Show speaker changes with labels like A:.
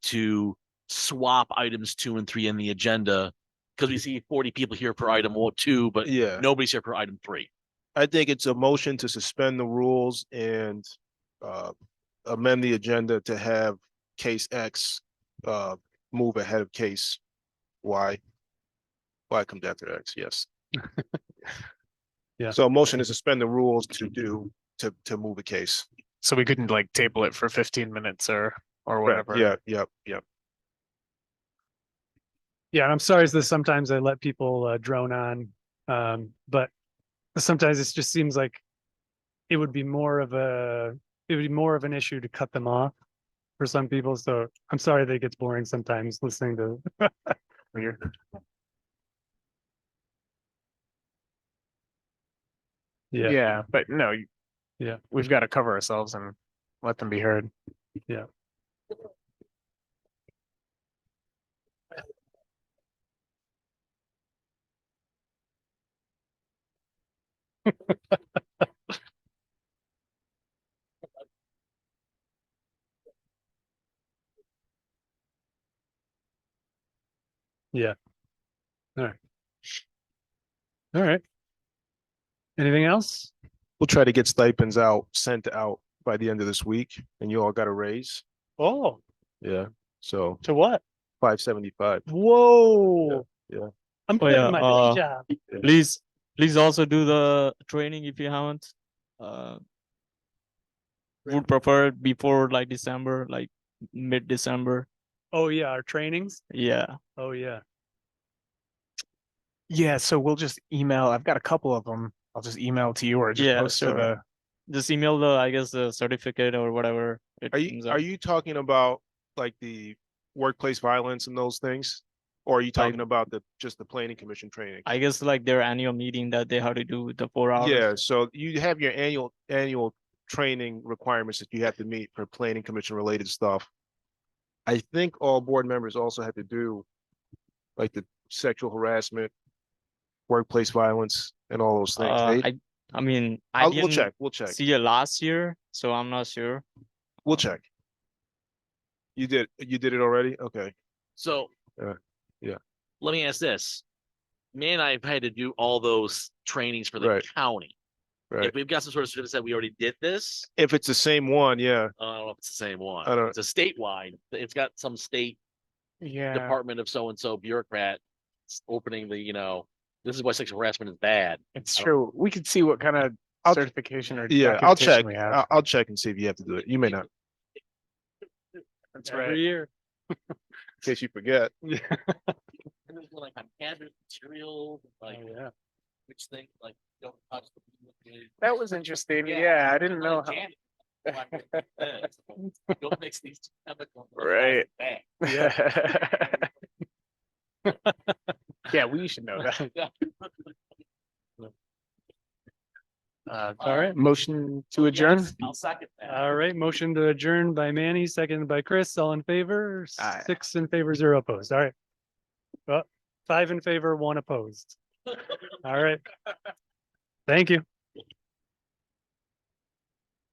A: to swap items two and three in the agenda. Cause we see forty people here for item one, two, but
B: Mm. Yeah,
A: nobody's here for item three.
B: I think it's a motion to suspend the rules and uh amend the agenda to have case X uh move ahead of case Y. Y comes after X, yes.
C: Yeah.
B: So a motion to suspend the rules to do, to to move a case.
C: So we couldn't like table it for fifteen minutes or, or
B: Correct.
C: whatever.
B: Yeah, yeah, yeah.
D: Yeah, and I'm sorry that sometimes I let people uh, drone on, um, but sometimes it just seems like it would be more of a it would be more of an issue to cut them off for some people. So I'm sorry that it gets boring sometimes listening to.
C: Weird.
D: Yeah,
C: Yeah, but no. you-
D: Yeah.
C: We've got to cover ourselves and let them be heard.
D: All right. Anything else?
B: We'll try to get stipends out, sent out by the end of this week, and you all got a raise.
D: Oh,
B: Yeah. So
D: to what?
B: five seventy-five.
D: Whoa.
B: yeah.
D: I'm
E: Oh,
D: quitting
E: yeah,
D: my day
E: uh,
D: job.
E: please please also do the training if you haven't uh would prefer it before like december like mid december
D: Oh yeah, our trainings.
E: yeah
D: Oh yeah.
C: Yeah, so we'll just email. I've got a couple of them. I'll just email to you or just
E: Yeah,
C: post to
E: sure.
C: the.
E: just email the i guess the certificate or whatever it
B: Are
E: comes
B: you,
E: up.
B: are you talking about like the workplace violence and those things? Or are you
E: Like-
B: talking about the, just the planning commission training?
E: i guess like their annual meeting that they have to do the four hours
B: Yeah, so you have your annual, annual training requirements that you have to meet for planning commission related stuff. I think all board members also have to do like the sexual harassment, workplace violence and all those things.
E: uh,
B: They-
E: i i mean i
B: I'll-
E: didn't
B: We'll check, we'll check,
E: see it last year so i'm not sure
B: we'll check. You did, you did it already? Okay.
A: So.
B: Uh, yeah.
A: Let me ask this. Me and I have had to do all those trainings for the
B: Right.
A: county. If
B: Right.
A: we've got some sort of certificate that we already did this,
B: If it's the same one, yeah,
A: I don't know if it's the same one.
B: I don't-
A: It's a statewide, it's got some state
C: Yeah.
A: department of so-and-so bureaucrat s- opening the, you know, this is why sexual harassment is bad.
C: It's true. We could see what kind of
B: I'll-
C: certification or.
B: yeah, I'll
C: documentation
B: check. Uh,
C: We
B: I'll,
C: have.
B: I'll check and see if you have to do it. You may not.
C: That's
E: every
C: right.
E: year
B: In case you forget.
A: And there's one, Like on hazardous material, like
C: Yeah.
A: which thing, like don't touch. the-
C: That was interesting.
A: Yeah,
C: Yeah, I didn't
A: Like
C: know. how-
A: janitor, like, this, Don't mix these two chemicals.
C: Right.
A: Bad.
C: Yeah. Yeah, we should know that. Uh, Oh,
A: All right.
C: motion to adjourn.
A: Yes, I'll second that.
D: All right, motion to adjourn by Manny, seconded by Chris, all in favor,
C: Aye.
D: six in favor, zero opposed, all right. Well, five in favor, one opposed. All right. Thank you.